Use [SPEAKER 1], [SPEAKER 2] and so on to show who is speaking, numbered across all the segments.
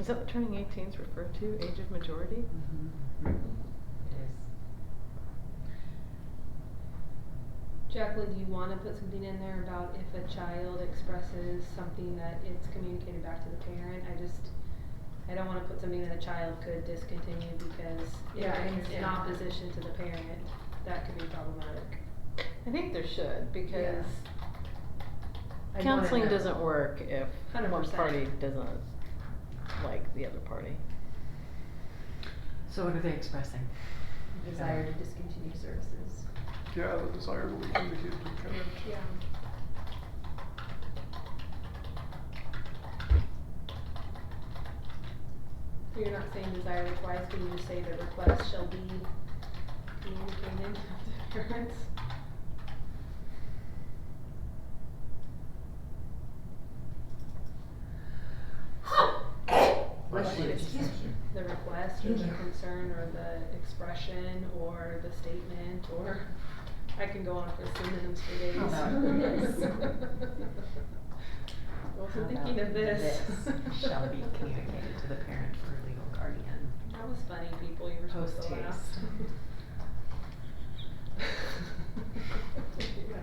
[SPEAKER 1] Is that what turning eighteen is referred to, age of majority?
[SPEAKER 2] Jacqueline, do you wanna put something in there about if a child expresses something that it's communicated back to the parent? I just, I don't wanna put something that a child could discontinue because
[SPEAKER 3] Yeah, I
[SPEAKER 2] if it's in
[SPEAKER 3] understand.
[SPEAKER 2] opposition to the parent, that could be problematic.
[SPEAKER 1] I think there should, because
[SPEAKER 3] I wanna
[SPEAKER 1] counseling
[SPEAKER 3] know.
[SPEAKER 1] doesn't work if one
[SPEAKER 2] 100%.
[SPEAKER 1] party doesn't like the other party.
[SPEAKER 4] So what are they expressing?
[SPEAKER 3] Desire to discontinue services.
[SPEAKER 5] Yeah, the desire to weaken the kid to kind of-
[SPEAKER 2] Yeah. You're not saying desire requires, can you just say the request shall be communicated to the parents?
[SPEAKER 4] Bless you.
[SPEAKER 2] The request or the concern or the expression or the statement or, I can go on for synonyms for days.
[SPEAKER 4] How about this? How
[SPEAKER 2] Wasn't thinking
[SPEAKER 4] about
[SPEAKER 2] of this.
[SPEAKER 4] this Shall be communicated to the parent or legal guardian.
[SPEAKER 2] That was funny, people. You were supposed to laugh.
[SPEAKER 4] Post-haste.
[SPEAKER 2] Yeah.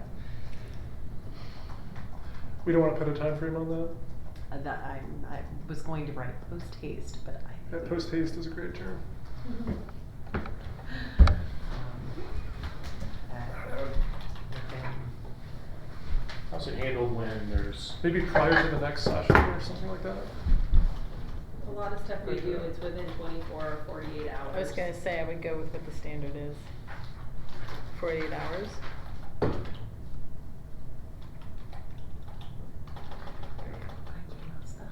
[SPEAKER 5] We don't wanna put a time frame on that?
[SPEAKER 4] Uh, that I, I was going to write post haste, but I.
[SPEAKER 5] That
[SPEAKER 4] think-
[SPEAKER 5] post haste is a great term.
[SPEAKER 4] Um, that within-
[SPEAKER 6] How's it handled when there's
[SPEAKER 5] Maybe prior to the next session or something like that?
[SPEAKER 2] A lot of stuff we do is within twenty-four or forty-eight hours.
[SPEAKER 1] I was gonna say, I would go with what the standard is. Forty-eight hours.
[SPEAKER 4] I cannot spell.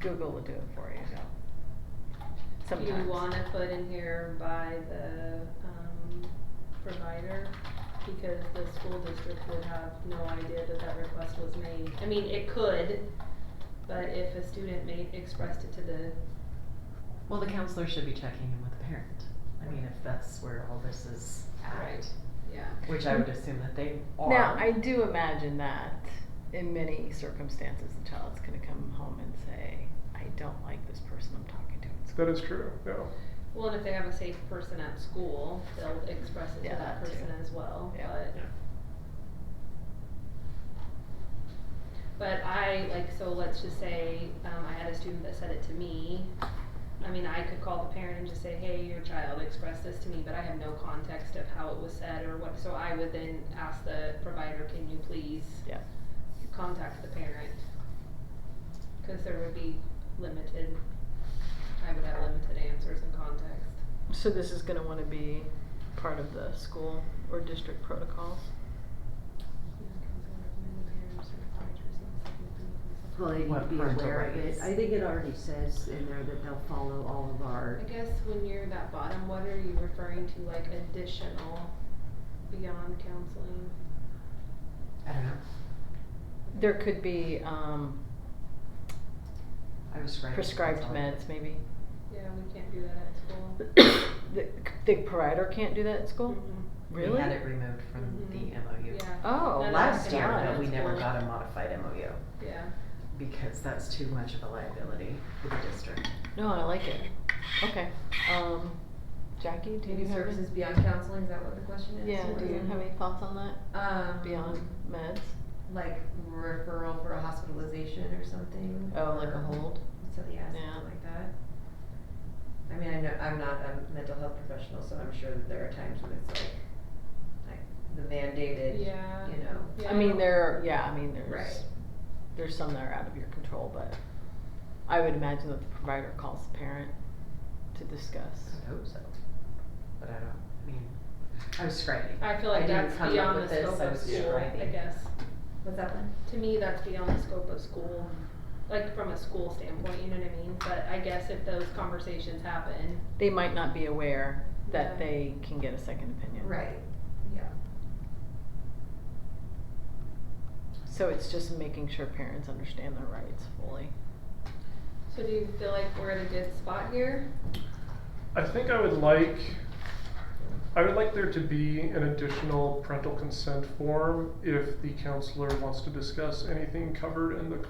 [SPEAKER 1] Google will do it for you.
[SPEAKER 2] Do
[SPEAKER 1] Sometimes.
[SPEAKER 2] you wanna put in here by the, um, provider? Because the school district would have no idea that that request was made. I mean, it could, but if a student made, expressed it to the,
[SPEAKER 4] Well, the counselor should be checking in with the parent. I mean, if that's where all this is at,
[SPEAKER 2] Right. yeah.
[SPEAKER 4] which I would assume that they are.
[SPEAKER 1] Now, I do imagine that in many circumstances, the child's gonna come home and say, I don't like this person I'm talking to at school.
[SPEAKER 5] That is true, yeah.
[SPEAKER 2] Well, and if they have a safe person at school, they'll express it to
[SPEAKER 1] Yeah,
[SPEAKER 2] that
[SPEAKER 1] that too.
[SPEAKER 2] person as well,
[SPEAKER 1] Yeah.
[SPEAKER 2] but.
[SPEAKER 6] Yeah.
[SPEAKER 2] But I, like, so let's just say, um, I had a student that said it to me. I mean, I could call the parent and just say, hey, your child expressed this to me, but I have no context of how it was said or what, so I would then ask the provider, can you please
[SPEAKER 1] Yeah.
[SPEAKER 2] contact the parent? Cause there would be limited, I would have limited answers and context.
[SPEAKER 1] So this is gonna wanna be part of the school or district protocols?
[SPEAKER 7] Well, they need to
[SPEAKER 4] What
[SPEAKER 7] be
[SPEAKER 4] parental
[SPEAKER 7] aware of it.
[SPEAKER 4] rights?
[SPEAKER 7] I think it already says in there that they'll follow all of
[SPEAKER 2] I
[SPEAKER 7] our,
[SPEAKER 2] guess when you're that bottom, what are you referring to, like additional beyond counseling?
[SPEAKER 4] I don't know.
[SPEAKER 1] There could be, um,
[SPEAKER 4] I was right.
[SPEAKER 1] prescribed
[SPEAKER 4] That's all.
[SPEAKER 1] meds, maybe.
[SPEAKER 2] Yeah, we can't do that at school.
[SPEAKER 1] The, the provider can't do that at school?
[SPEAKER 2] Mhm.
[SPEAKER 1] Really?
[SPEAKER 4] We had it removed from the
[SPEAKER 2] Mhm.
[SPEAKER 4] MOU.
[SPEAKER 2] Yeah.
[SPEAKER 1] Oh,
[SPEAKER 2] None of us
[SPEAKER 4] Last
[SPEAKER 2] can
[SPEAKER 4] year,
[SPEAKER 2] do
[SPEAKER 1] Yeah,
[SPEAKER 2] that
[SPEAKER 4] but
[SPEAKER 2] at
[SPEAKER 4] we never
[SPEAKER 2] school.
[SPEAKER 4] got a modified MOU
[SPEAKER 2] Yeah,
[SPEAKER 4] because that's too much of a liability for the district.
[SPEAKER 1] No, I like it. Okay, um, Jackie, do you
[SPEAKER 3] Maybe
[SPEAKER 1] have? any-
[SPEAKER 3] services beyond counseling, is that what the question is?
[SPEAKER 1] Yeah,
[SPEAKER 3] Or
[SPEAKER 1] do you
[SPEAKER 3] is it-
[SPEAKER 1] have any thoughts on that,
[SPEAKER 3] Um.
[SPEAKER 1] beyond meds?
[SPEAKER 3] Like referral for a hospitalization or something?
[SPEAKER 1] Oh, like a
[SPEAKER 3] or-
[SPEAKER 1] hold?
[SPEAKER 3] So, yeah,
[SPEAKER 1] Yeah.
[SPEAKER 3] something like that. I mean, I know, I'm not a mental health professional, so I'm sure that there are times when it's like, like the mandated, you
[SPEAKER 2] Yeah.
[SPEAKER 3] know.
[SPEAKER 2] yeah.
[SPEAKER 1] I mean, there, yeah, I mean, there's,
[SPEAKER 3] Right.
[SPEAKER 1] there's some that are out of your control, but I would imagine that the provider calls the parent to discuss.
[SPEAKER 4] I hope so. But I don't, I mean, I was scribing.
[SPEAKER 2] I feel like
[SPEAKER 4] didn't
[SPEAKER 2] that's
[SPEAKER 4] come up
[SPEAKER 2] beyond the
[SPEAKER 4] with this,
[SPEAKER 2] scope
[SPEAKER 4] I
[SPEAKER 2] of
[SPEAKER 4] was
[SPEAKER 2] school, I
[SPEAKER 4] scribing.
[SPEAKER 2] guess.
[SPEAKER 3] What's that one?
[SPEAKER 2] To me, that's beyond the scope of school, like from a school standpoint, you know what I mean? But I guess if those conversations happen,
[SPEAKER 1] They might not be aware that
[SPEAKER 2] Yeah.
[SPEAKER 1] they can get a second opinion.
[SPEAKER 3] Right, yeah.
[SPEAKER 1] So it's just making sure parents understand their rights fully.
[SPEAKER 2] so do you feel like we're at a good spot here?
[SPEAKER 5] I think I would like, I would like there to be an additional parental consent form if the counselor wants to discuss anything covered in the